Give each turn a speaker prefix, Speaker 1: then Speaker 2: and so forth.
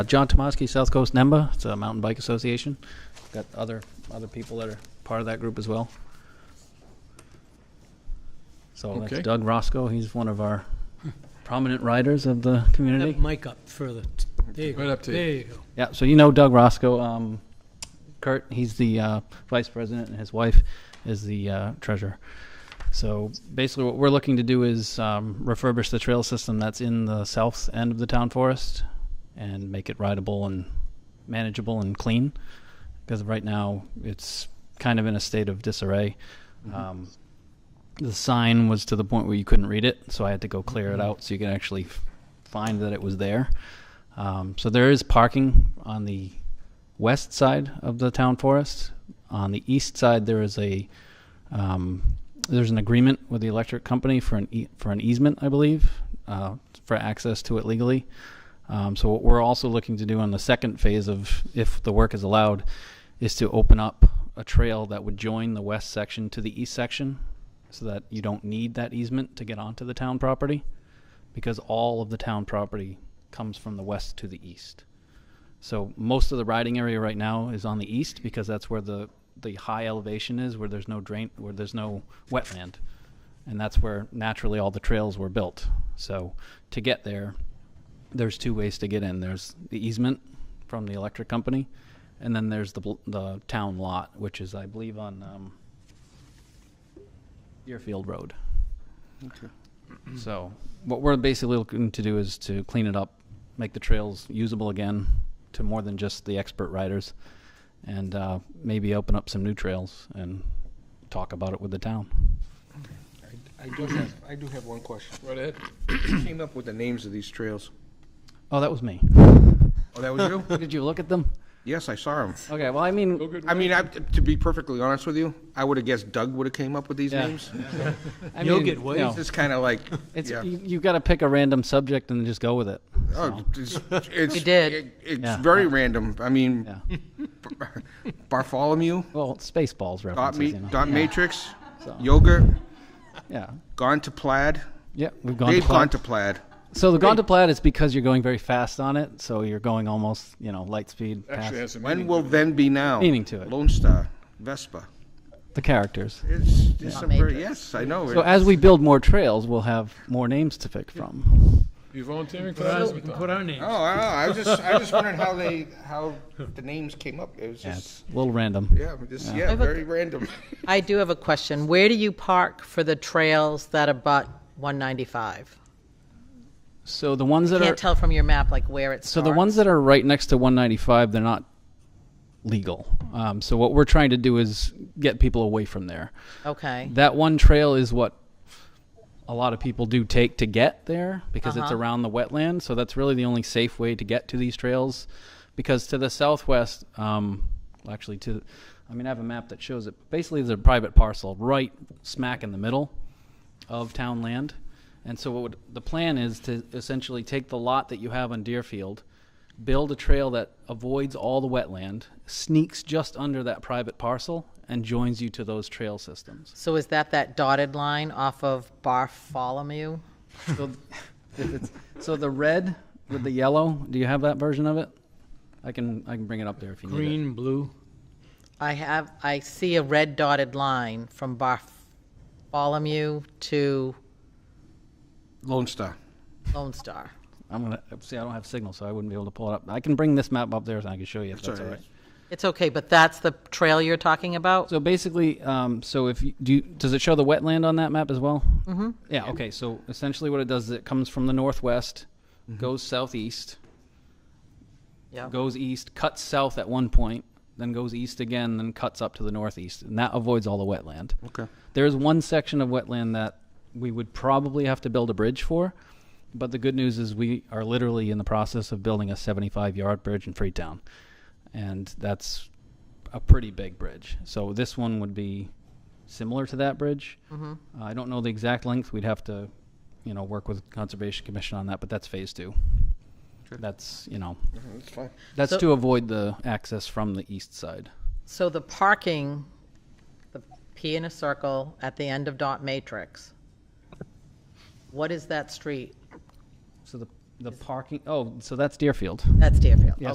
Speaker 1: Uh, John Tomaski, South Coast NEMBA, it's a mountain bike association. Got other, other people that are part of that group as well. So
Speaker 2: Okay.
Speaker 1: that's Doug Roscoe, he's one of our prominent riders of the community.
Speaker 3: That mic up further. There you go.
Speaker 2: Right up to you.
Speaker 3: There you go.
Speaker 1: Yeah, so you know Doug Roscoe, um, Kurt. He's the uh, vice president, and his wife is the uh, treasurer. So basically, what we're looking to do is um, refurbish the trail system that's in the south end of the town forest and make it rideable and manageable and clean. Because right now, it's kind of in a state of disarray. Um, the sign was to the point where you couldn't read it, so I had to go clear it out so you could actually f- find that it was there. Um, so there is parking on the west side of the town forest. On the east side, there is a um, there's an agreement with the electric company for an e- for an easement, I believe, uh, for access to it legally. Um, so what we're also looking to do on the second phase of if the work is allowed, is to open up a trail that would join the west section to the east section, so that you don't need that easement to get onto the town property because all of the town property comes from the west to the east. So most of the riding area right now is on the east because that's where the, the high elevation is, where there's no drain, where there's no wetland. And that's where naturally all the trails were built. So to get there, there's two ways to get in. There's the easement from the electric company, and then there's the, bl- the town lot, which is, I believe, on, um, Deerfield Road. So what we're basically looking to do is to clean it up, make the trails usable again to more than just the expert riders, and uh, maybe open up some new trails and talk about it with the town.
Speaker 4: I do have, I do have one question.
Speaker 2: Right ahead.
Speaker 4: Who came up with the names of these trails?
Speaker 1: Oh, that was me.
Speaker 4: Oh, that was you?
Speaker 1: Did you look at them?
Speaker 4: Yes, I saw them.
Speaker 1: Okay, well, I
Speaker 2: Go
Speaker 1: mean,
Speaker 2: good.
Speaker 4: I mean, I, to be perfectly honest with you, I would have guessed Doug would have came up with these
Speaker 1: Yeah.
Speaker 4: names.
Speaker 1: I
Speaker 3: You'll
Speaker 1: mean,
Speaker 3: get
Speaker 1: you
Speaker 3: ways.
Speaker 1: know,
Speaker 4: It's just kind of like,
Speaker 1: It's,
Speaker 4: yeah.
Speaker 1: you, you've got to pick a random subject and just go with it.
Speaker 4: Oh, it's, it's.
Speaker 5: You did.
Speaker 4: it- It's
Speaker 1: Yeah.
Speaker 4: very random. I mean,
Speaker 1: Yeah.
Speaker 4: Bartholomew,
Speaker 1: Well, Spaceballs
Speaker 4: dot
Speaker 1: references,
Speaker 4: me,
Speaker 1: you know.
Speaker 4: dot matrix,
Speaker 1: So-
Speaker 4: yogurt,
Speaker 1: Yeah.
Speaker 4: gone to plaid.
Speaker 1: Yeah, we've gone
Speaker 4: They've
Speaker 1: to Plaid.
Speaker 4: gone to plaid.
Speaker 1: So the gone to plaid is because you're going very fast on it, so you're going almost, you know, light speed past
Speaker 2: Actually has some
Speaker 4: When
Speaker 2: meaning.
Speaker 4: will then be now?
Speaker 1: Meaning to it.
Speaker 4: Lone Star, Vespa.
Speaker 1: the characters.
Speaker 4: It's, it's some very,
Speaker 5: Matrix.
Speaker 4: yes, I know.
Speaker 1: So as we build more trails, we'll have more names to pick from.
Speaker 2: You volunteering for
Speaker 3: Put our-
Speaker 2: that?
Speaker 3: we can Put our name.
Speaker 4: Oh, I don't know. I was just, I was just wondering how they, how the names came up. It was
Speaker 1: Yeah,
Speaker 4: just.
Speaker 1: it's a little random.
Speaker 4: Yeah, just, yeah,
Speaker 5: I've a-
Speaker 4: very random.
Speaker 5: I do have a question. Where do you park for the trails that abut 195?
Speaker 1: So the ones that are
Speaker 5: Can't tell from your map like where it's.
Speaker 1: so the ones that are right next to 195, they're not legal. Um, so what we're trying to do is get people away from there.
Speaker 5: Okay,
Speaker 1: That one trail is what a lot of people do take to get there because it's
Speaker 5: Uh-huh.
Speaker 1: around the wetland. So that's really the only safe way to get to these trails. Because to the southwest, um, well, actually, to I mean, I have a map that shows it. Basically, there's a private parcel right smack in the middle of town land. And so, what would, the plan is to essentially take the lot that you have on Deerfield, build a trail that avoids all the wetland, sneaks just under that private parcel, and joins you to those trail systems.
Speaker 5: so is that that dotted line off of Bartholomew?
Speaker 1: So, if it's, so the red with the yellow. Do you have that version of it? I can I can bring it up there if you need it.
Speaker 3: Green, blue.
Speaker 5: I have, I see a red dotted line from Bartholomew to
Speaker 4: Lone Star.
Speaker 5: Lone Star.
Speaker 1: I'm gonna see. I don't have signal, so I wouldn't be able to pull it up. I can bring this map up there, and I can show you if that's, all right.
Speaker 5: It's okay, but that's the trail you're talking about?
Speaker 1: So basically, um, so if you, do you, does it show the wetland on that map as well? Mm-hmm. Yeah. Okay. So essentially, what it does is it comes from the northwest, goes southeast,
Speaker 5: Yeah.
Speaker 1: goes east, cuts south at one point, then goes east again, then cuts up to the northeast, and that avoids all the wetland.
Speaker 4: Okay.
Speaker 1: There is one section of wetland that we would probably have to build a bridge for, but the good news is we are literally in the process of building a 75 yard bridge in Freetown, and that's a pretty big bridge. So this one would be similar to that bridge.
Speaker 5: Mm-hmm.
Speaker 1: Uh, I don't know the exact length. We'd have to, you know, work with Conservation Commission on that, but that's phase two. That's you know
Speaker 4: That's fine.
Speaker 1: that's
Speaker 5: So-
Speaker 1: to avoid the access from the east side.
Speaker 5: So the parking, the P in a circle at the end of dot matrix, what is that street?
Speaker 1: So the
Speaker 5: The parking, oh, so that's Deerfield.
Speaker 1: That's Deerfield.
Speaker 5: Yes,